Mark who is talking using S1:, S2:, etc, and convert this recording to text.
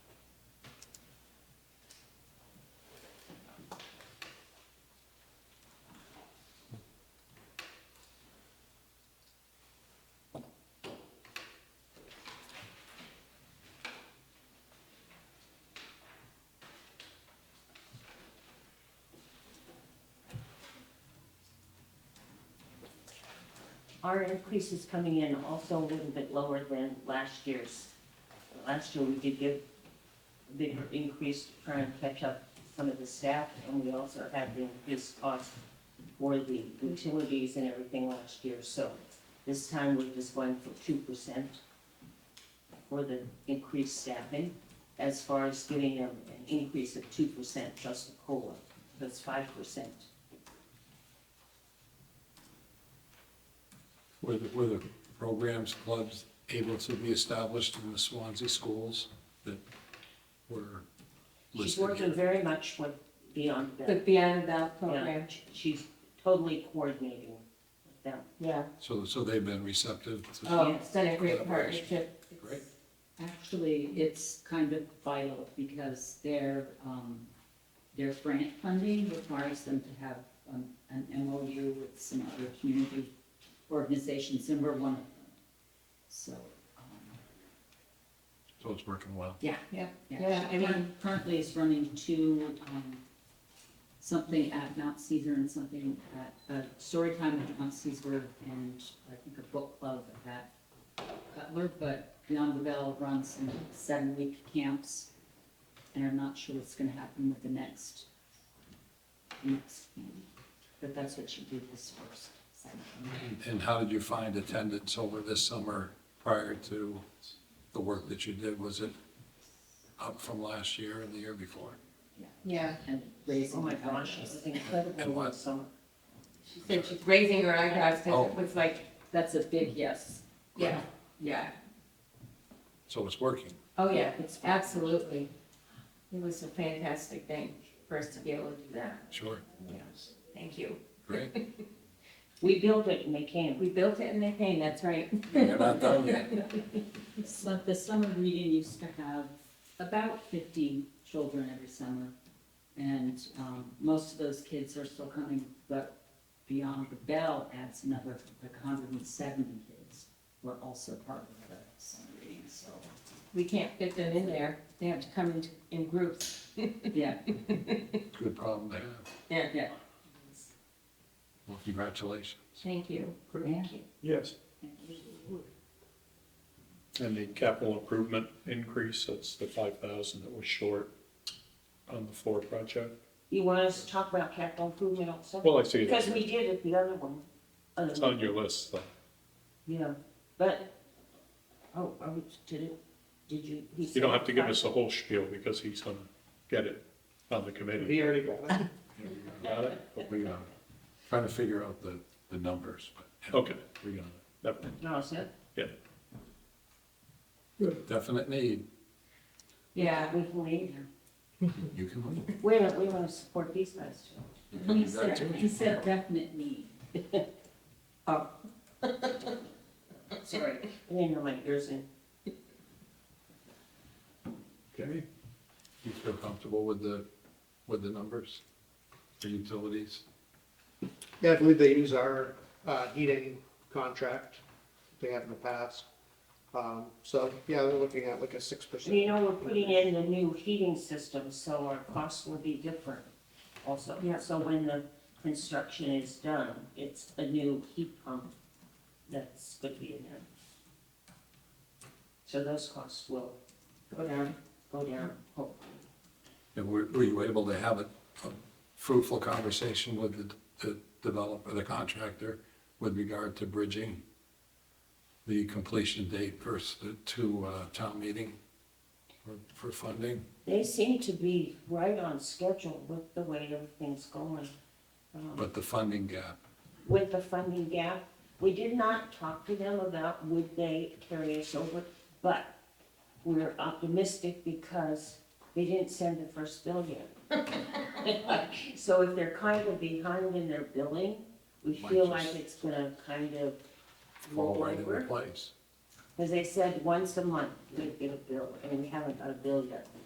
S1: our increase is coming in also a little bit lower than last year's. Last year, we did give a big increase to try and catch up some of the staff, and we also had the increased cost for the utilities and everything last year, so this time we're just going for two percent for the increased staffing, as far as getting an an increase of two percent just the COLA, that's five percent.
S2: Were the, were the programs, clubs able to be established in the Swansea schools that were
S1: She's
S2: listed
S1: working
S2: here?
S1: very much with Beyond
S3: The
S1: Bed.
S3: Beyond Bell
S1: Yeah,
S3: program,
S1: she- She's totally coordinating with them.
S3: yeah.
S2: So, so they've been receptive to,
S3: Oh, it's done a great partnership.
S2: Great.
S4: Actually, it's kind of vital because their, um, their grant funding requires them to have um, an MOU with some other community organizations, and we're one of them. So, um,
S2: so it's working well.
S4: yeah.
S3: Yeah,
S4: Yeah,
S3: yeah, I
S4: she
S3: mean,
S4: curr- currently is running two, um, something at Mount Caesar and something at, uh, story time at Mount Caesar and I think a book club at Cutler, but Beyond the Bell runs some seven-week camps. And I'm not sure what's gonna happen with the next, next camp, but that's what she did this first summer.
S2: And how did you find attendance over this summer prior to the work that you did? Was it up from last year and the year before?
S3: yeah.
S4: And raising.
S1: Oh my
S4: the
S1: gosh, it
S4: eyebrows.
S1: was incredible
S2: And what?
S1: last summer.
S3: She said she's raising her eyebrows because it was like,
S4: That's a big yes.
S3: yeah, yeah.
S2: So it's working.
S3: Oh, yeah, it's absolutely. It was a fantastic thing for us to be able to do that.
S2: Sure.
S3: Yes. Thank you.
S2: Great.
S1: We built it and they came.
S3: We built it in the hay, that's right.
S2: You're not done yet.
S4: So the summer reading used to have about fifty children every summer. And, um, most of those kids are still coming, but Beyond the Bell adds another, like hundred and seventy kids were also part of the summer reading, so,
S3: We can't fit them in there. They have to come in, in groups.
S4: yeah.
S2: Good problem to have.
S3: Yeah.
S2: Well, congratulations.
S3: Thank you.
S4: Yeah.
S5: Yes, and the capital improvement increase, that's the five thousand that was short on the floor project.
S1: You want us to talk about capital improvement also?
S5: Well, I see
S1: Because
S5: it,
S1: we did it the other one. Uh,
S5: it's on your list, though.
S1: Yeah, but, oh, are we, did it, did you? he
S5: You don't
S1: said-
S5: have to give us the whole spiel because he's gonna get it on the committee.
S6: He already got it.
S5: Got it?
S2: We, uh, trying to figure out the, the numbers, but.
S5: Okay,
S2: We got it.
S5: never mind.
S1: No, I said,
S2: Definite need.
S3: Yeah,
S1: we can leave.
S2: You can leave.
S1: We want, we want to support these guys too.
S2: You can
S4: He
S2: do that
S4: said,
S2: too.
S4: he said definite need.
S1: Sorry. I didn't know my ears in.
S2: Okay. You feel comfortable with the, with the numbers, the utilities?
S6: Yeah, I believe they use our uh, heating contract they have in the past. Um, So, yeah, they're looking at like a six
S1: And you
S6: percent.
S1: know, we're putting in the new heating system, so our costs will be different also.
S3: Yeah.
S1: So when the construction is done, it's a new heat pump that's going to be in there. So those costs will
S3: go down.
S1: go down, hopefully.
S2: And were, were you able to have a a fruitful conversation with the, the developer, the contractor, with regard to bridging the completion date versus the, to, uh, town meeting for, for funding?
S1: They seem to be right on schedule with the way everything's going. Um,
S2: But the funding gap,
S1: with the funding gap. We did not talk to them about would they carry us over, but we're optimistic because they didn't send the first bill yet. So if they're kind of behind in their billing, we feel
S2: Might just-
S1: like it's gonna kind of
S2: fall
S1: roll
S2: right into
S1: over.
S2: place.
S1: Because they said once a month we'd get a bill, and we haven't got a bill yet.